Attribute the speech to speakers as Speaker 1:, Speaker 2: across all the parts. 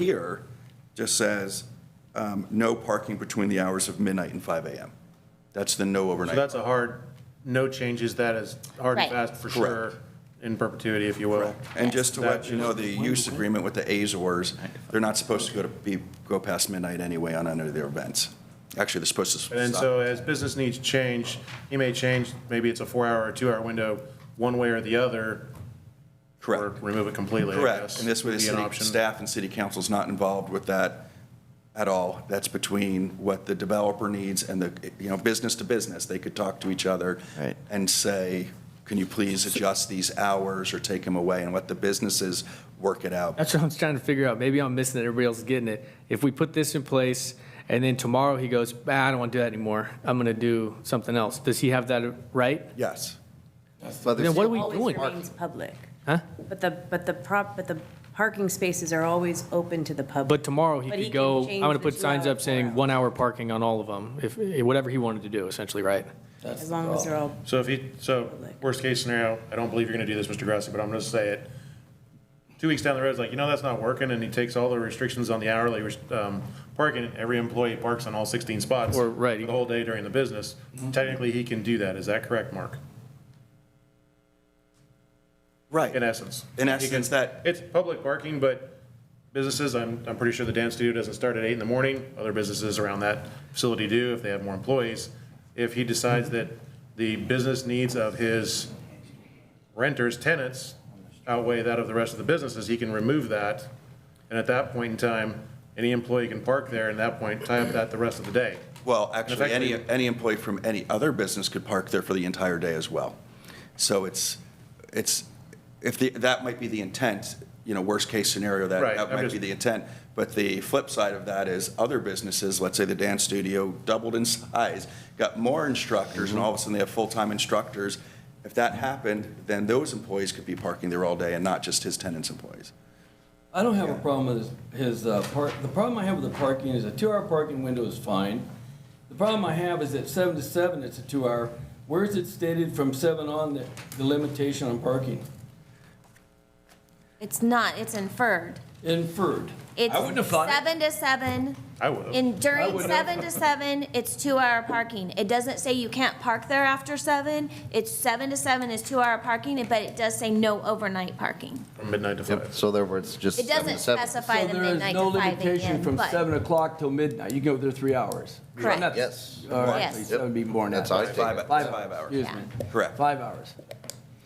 Speaker 1: here just says, um, no parking between the hours of midnight and 5 a.m. That's the no
Speaker 2: So
Speaker 1: overnight.
Speaker 2: that's a hard, no changes, that is hard and
Speaker 3: Right.
Speaker 2: fast for
Speaker 1: Correct.
Speaker 2: sure, in perpetuity, if you will.
Speaker 1: And just to let you know, the
Speaker 2: Yes.
Speaker 1: use agreement with the Azores, they're not supposed to go to be, go past midnight anyway on any of their events. Actually, they're supposed to.
Speaker 2: And
Speaker 1: stop.
Speaker 2: so as business needs change, you may change, maybe it's a four-hour or two-hour window, one way or the other, or
Speaker 1: Correct.
Speaker 2: remove it completely, I
Speaker 1: Correct,
Speaker 2: guess,
Speaker 1: and this way the
Speaker 2: would be an
Speaker 1: city
Speaker 2: option.
Speaker 1: staff and city council's not involved with that at all. That's between what the developer needs and the, you know, business to business. They could talk to each other.
Speaker 4: Right.
Speaker 1: And say, can you please adjust these hours or take them away and let the businesses work it out.
Speaker 5: That's what I'm trying to figure out. Maybe I'm missing it. Everybody else is getting it. If we put this in place and then tomorrow he goes, "Ah, I don't want to do that anymore. I'm going to do something else. Does he have that right?
Speaker 1: Yes,
Speaker 5: Then what are we
Speaker 3: Always
Speaker 5: doing?
Speaker 3: remains public.
Speaker 5: Huh?
Speaker 3: But the, but the prop, but the parking spaces are always open to the
Speaker 5: But
Speaker 3: public.
Speaker 5: tomorrow he
Speaker 3: But he
Speaker 5: could
Speaker 3: can
Speaker 5: go, I'm
Speaker 3: change
Speaker 5: going to
Speaker 3: the
Speaker 5: put signs
Speaker 3: two-hour
Speaker 5: up saying
Speaker 3: four-hour.
Speaker 5: one hour parking on all of them, if, eh, whatever he wanted to do essentially, right?
Speaker 3: As long as they're all,
Speaker 2: So if you, so worst-case scenario, I don't believe you're gonna do this, Mr. Grassi, but I'm gonna say it. Two weeks down the road, it's like, you know, that's not working, and he takes all the restrictions on the hourly, um, parking, every employee parks on all 16 spots.
Speaker 5: Or, right. Mm-hmm.
Speaker 2: for The whole day during the business. Technically, he can do that. Is that correct, Mark?
Speaker 1: right.
Speaker 2: In essence.
Speaker 1: In
Speaker 2: He can-
Speaker 1: essence, that,
Speaker 2: It's public parking, but businesses, I'm, I'm pretty sure the dance studio doesn't start at eight in the morning. Other businesses around that facility do if they have more employees. If he decides that the business needs of his renters, tenants outweigh that of the rest of the businesses, he can remove that. And at that point in time, any employee can park there and at that point, tie up that the rest of the day.
Speaker 1: well, actually, any,
Speaker 2: Effectively-
Speaker 1: any employee from any other business could park there for the entire day as well. So it's, it's, if the, that might be the intent, you know, worst-case scenario, that,
Speaker 2: Right,
Speaker 1: that
Speaker 2: I'm
Speaker 1: might
Speaker 2: just-
Speaker 1: be the intent. But the flip side of that is other businesses, let's say the dance studio doubled in size, got more instructors, and
Speaker 2: Mm-hmm.
Speaker 1: all of a sudden they have full-time instructors. If that happened, then those employees could be parking there all day and not just his tenants' employees.
Speaker 6: I don't have a problem with his, his, uh, park, the problem I have with the parking is a two-hour parking window is fine. The problem I have is that seven to seven, it's a two-hour. Where is it stated from seven on that the limitation on parking?
Speaker 7: It's not, it's inferred.
Speaker 6: Inferred.
Speaker 7: It's
Speaker 6: I wouldn't have thought it.
Speaker 7: seven to seven.
Speaker 2: I would've.
Speaker 7: And
Speaker 6: I
Speaker 7: during
Speaker 6: would've.
Speaker 7: seven to seven, it's two-hour parking. It doesn't say you can't park there after seven. It's seven to seven is two-hour parking, but it does say no overnight parking.
Speaker 2: From midnight to
Speaker 4: Yep,
Speaker 2: five.
Speaker 4: so therefore it's just
Speaker 7: It
Speaker 4: seven to
Speaker 7: doesn't
Speaker 4: seven.
Speaker 7: specify the midnight
Speaker 6: So
Speaker 7: to
Speaker 6: there is
Speaker 7: five
Speaker 6: no limitation
Speaker 7: again,
Speaker 6: from
Speaker 7: but
Speaker 6: seven o'clock till midnight. You go there three hours.
Speaker 7: Correct.
Speaker 6: And that's-
Speaker 4: Yes.
Speaker 6: All right,
Speaker 7: Yes.
Speaker 6: that would be more than
Speaker 4: That's
Speaker 6: that.
Speaker 4: how I take
Speaker 1: Five,
Speaker 4: it.
Speaker 1: five hours.
Speaker 6: Excuse me.
Speaker 1: Correct.
Speaker 6: Five hours.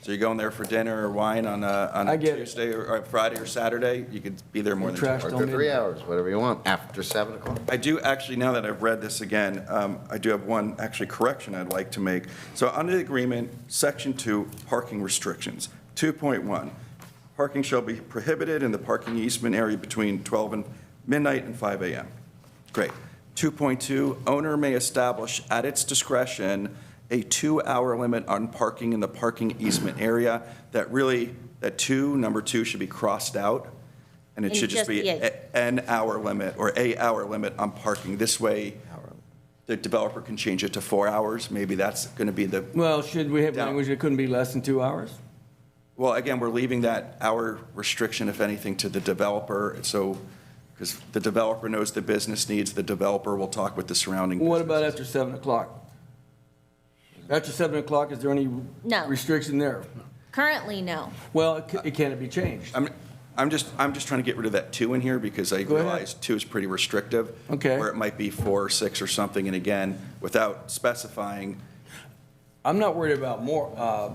Speaker 1: So you're going there for dinner or wine on a, on
Speaker 6: I
Speaker 1: a
Speaker 6: get it.
Speaker 1: Tuesday or or Friday or Saturday, you could be there more than two
Speaker 6: Trash
Speaker 1: hours.
Speaker 4: Or
Speaker 6: Till
Speaker 4: three hours, whatever you want, after seven o'clock.
Speaker 1: I do, actually, now that I've read this again, um, I do have one, actually, correction I'd like to make. So under the agreement, Section 2, parking restrictions, 2.1, parking shall be prohibited in the parking easement area between 12 and midnight and 5 a.m. Great. 2.2, owner may establish at its discretion a two-hour limit on parking in the parking easement area. That really, that 2, number 2, should be crossed out, and it
Speaker 3: And
Speaker 1: should just
Speaker 3: just
Speaker 1: be
Speaker 3: be a-
Speaker 1: a- an hour limit or a hour limit on parking. This way, the developer can change it to four hours. Maybe that's going to be the,
Speaker 6: Well, should we have
Speaker 1: Yeah.
Speaker 6: language that couldn't be less than two hours?
Speaker 1: well, again, we're leaving that hour restriction, if anything, to the developer. So, because the developer knows the business needs, the developer will talk with the surrounding.
Speaker 6: Well, What about
Speaker 1: businesses.
Speaker 6: after seven o'clock? After seven o'clock, is there any
Speaker 7: No.
Speaker 6: restriction there?
Speaker 7: currently, no.
Speaker 6: Well, it ca- it can't be changed.
Speaker 1: I'm, I'm just, I'm just trying to get rid of that two in here because I
Speaker 6: Go ahead.
Speaker 1: realize two is pretty restrictive.
Speaker 6: Okay.
Speaker 1: Where it might be four or six or something. And again, without specifying,
Speaker 6: I'm not worried about more, uh,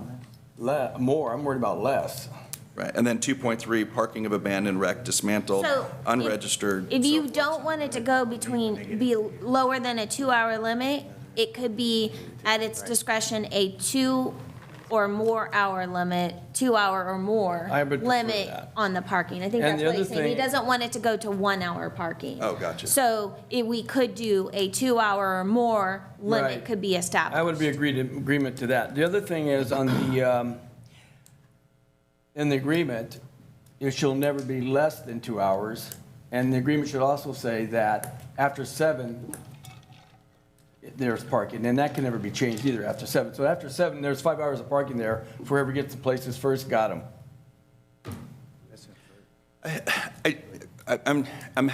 Speaker 6: le- more, I'm worried about less.
Speaker 1: right? And then 2.3, parking of abandoned, wrecked, dismantled,
Speaker 7: So. if-
Speaker 1: unregistered.
Speaker 7: If
Speaker 1: so
Speaker 7: you
Speaker 1: forth.
Speaker 7: don't want it to go between, be lower than a two-hour limit, it could be at its discretion a two or more hour limit, two-hour or more.
Speaker 6: I would prefer
Speaker 7: Limit
Speaker 6: that.
Speaker 7: on the parking. I think
Speaker 6: And
Speaker 7: that's
Speaker 6: the
Speaker 7: what
Speaker 6: other
Speaker 7: he's saying. He
Speaker 6: thing-
Speaker 7: doesn't want it to go to one-hour parking.
Speaker 1: Oh, gotcha.
Speaker 7: So it- we could do a two-hour or more
Speaker 6: Right.
Speaker 7: limit could be established.
Speaker 6: I would be agreed, agreement to that. The other thing is on the, um, in the agreement, it shall never be less than two hours. And the agreement should also say that after seven, there's parking, and that can never be changed either after seven. So after seven, there's five hours of parking there. for Whoever gets the places first got them.
Speaker 1: I, I- I'm, I'm